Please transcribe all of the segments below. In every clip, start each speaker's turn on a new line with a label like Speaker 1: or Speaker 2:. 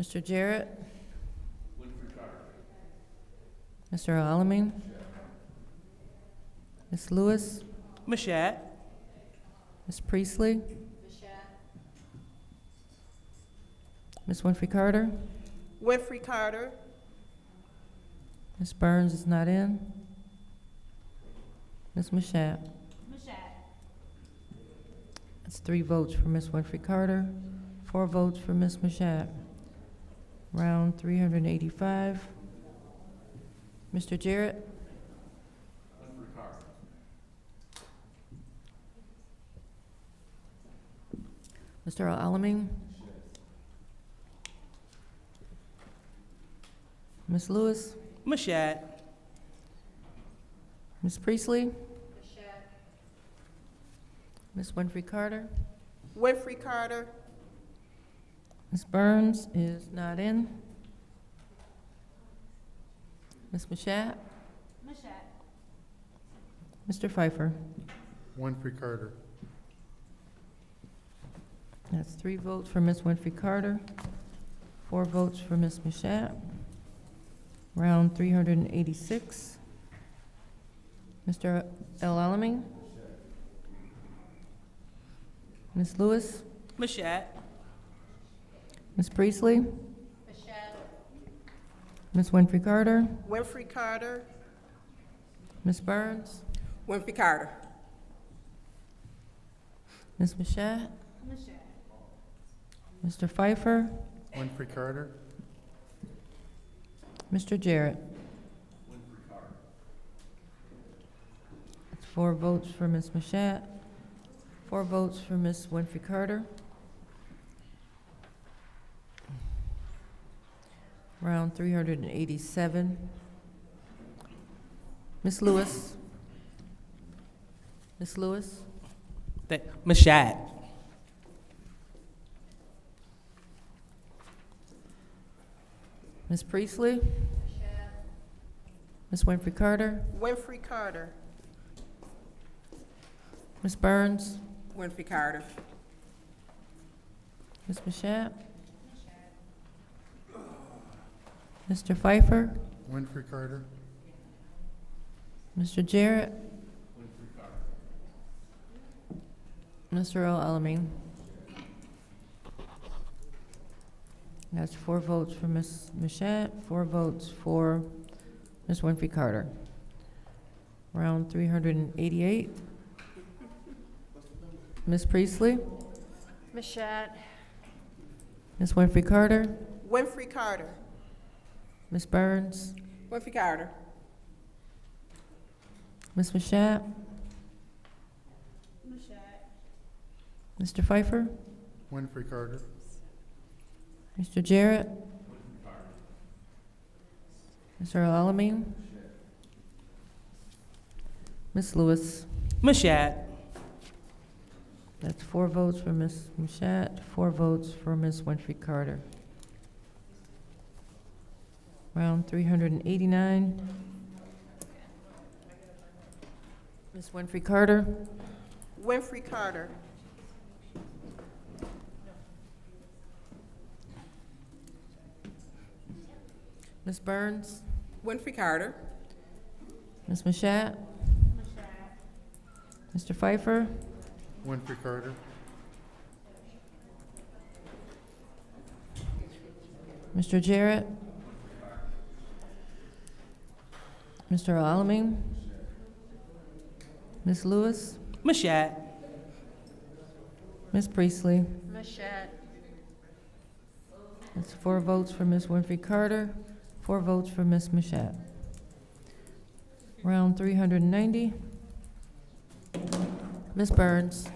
Speaker 1: Mr. Jarrett? Mr. Alamin? Ms. Lewis?
Speaker 2: Mashat.
Speaker 1: Ms. Priestley? Ms. Winfrey Carter?
Speaker 2: Winfrey Carter.
Speaker 1: Ms. Burns is not in. Ms. Mashat? Mashat. That's three votes for Ms. Winfrey Carter, four votes for Ms. Mashat. Round three hundred and eighty-five. Mr. Jarrett? Mr. Alamin? Ms. Lewis?
Speaker 2: Mashat.
Speaker 1: Ms. Priestley? Ms. Winfrey Carter?
Speaker 2: Winfrey Carter.
Speaker 1: Ms. Burns is not in. Ms. Mashat? Mashat. Mr. Pfeiffer?
Speaker 3: Winfrey Carter.
Speaker 1: That's three votes for Ms. Winfrey Carter, four votes for Ms. Mashat. Round three hundred and eighty-six. Mr. El Alamin? Ms. Lewis?
Speaker 2: Mashat.
Speaker 1: Ms. Priestley? Ms. Winfrey Carter?
Speaker 2: Winfrey Carter.
Speaker 1: Ms. Burns?
Speaker 2: Winfrey Carter.
Speaker 1: Ms. Mashat? Mr. Pfeiffer?
Speaker 3: Winfrey Carter.
Speaker 1: Mr. Jarrett? That's four votes for Ms. Mashat, four votes for Ms. Winfrey Carter. Round three hundred and eighty-seven. Ms. Lewis? Ms. Lewis?
Speaker 2: Mashat.
Speaker 1: Ms. Priestley? Ms. Winfrey Carter?
Speaker 2: Winfrey Carter.
Speaker 1: Ms. Burns?
Speaker 2: Winfrey Carter.
Speaker 1: Ms. Mashat? Mr. Pfeiffer?
Speaker 3: Winfrey Carter.
Speaker 1: Mr. Jarrett? Mr. El Alamin? That's four votes for Ms. Mashat, four votes for Ms. Winfrey Carter. Round three hundred and eighty-eight. Ms. Priestley?
Speaker 4: Mashat.
Speaker 1: Ms. Winfrey Carter?
Speaker 2: Winfrey Carter.
Speaker 1: Ms. Burns?
Speaker 2: Winfrey Carter.
Speaker 1: Ms. Mashat? Mr. Pfeiffer?
Speaker 3: Winfrey Carter.
Speaker 1: Mr. Jarrett? Mr. Alamin? Ms. Lewis?
Speaker 2: Mashat.
Speaker 1: That's four votes for Ms. Mashat, four votes for Ms. Winfrey Carter. Round three hundred and eighty-nine. Ms. Winfrey Carter?
Speaker 2: Winfrey Carter.
Speaker 1: Ms. Burns?
Speaker 2: Winfrey Carter.
Speaker 1: Ms. Mashat? Mr. Pfeiffer?
Speaker 3: Winfrey Carter.
Speaker 1: Mr. Jarrett? Mr. Alamin? Ms. Lewis?
Speaker 2: Mashat.
Speaker 1: Ms. Priestley?
Speaker 4: Mashat.
Speaker 1: That's four votes for Ms. Winfrey Carter, four votes for Ms. Mashat. Round three hundred and ninety. Ms. Burns?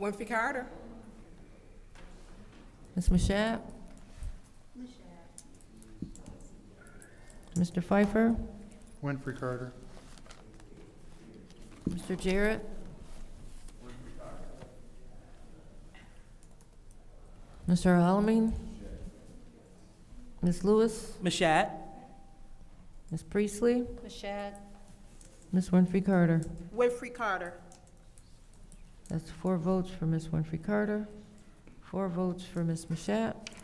Speaker 2: Winfrey Carter.
Speaker 1: Ms. Mashat? Mr. Pfeiffer?
Speaker 3: Winfrey Carter.
Speaker 1: Mr. Jarrett? Mr. Alamin? Ms. Lewis?
Speaker 2: Mashat.
Speaker 1: Ms. Priestley?
Speaker 4: Mashat.
Speaker 1: Ms. Winfrey Carter?
Speaker 2: Winfrey Carter.
Speaker 1: That's four votes for Ms. Winfrey Carter, four votes for Ms. Mashat,